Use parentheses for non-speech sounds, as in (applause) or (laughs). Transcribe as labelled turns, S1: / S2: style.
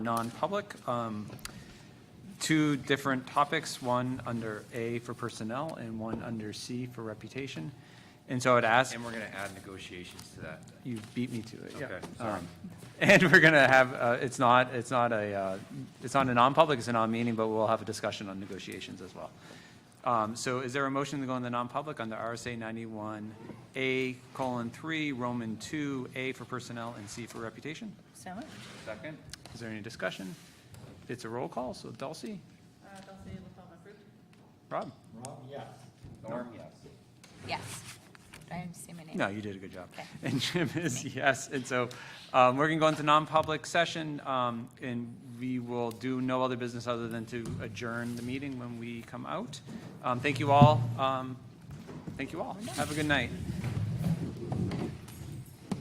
S1: non-public. um, Two different topics, one under A for personnel and one under C for reputation. And so I'd ask,
S2: And we're going to add negotiations to that.
S1: you beat me to it, yeah.
S2: Okay, sorry.
S1: Um, And we're going to have, uh, it's not, it's not a, uh, it's not a non-public, it's a non-meeting, but we'll have a discussion on negotiations as well. Um, So is there a motion to go in the non-public under RSA 91A colon 3, Roman 2, A for personnel and C for reputation?
S3: So moved.
S2: Second?
S1: Is there any discussion? It's a roll call, so Dulcie? Rob?
S2: Norm, yes.
S3: Yes. Do I say my name?
S1: No, you did a good job.
S3: Okay.
S1: (laughs) And Jim is yes, and so um, we're going to go into non-public session, um, and we will do no other business other than to adjourn the meeting when we come out. Um, Thank you all. Um, Thank you all. Have a good night.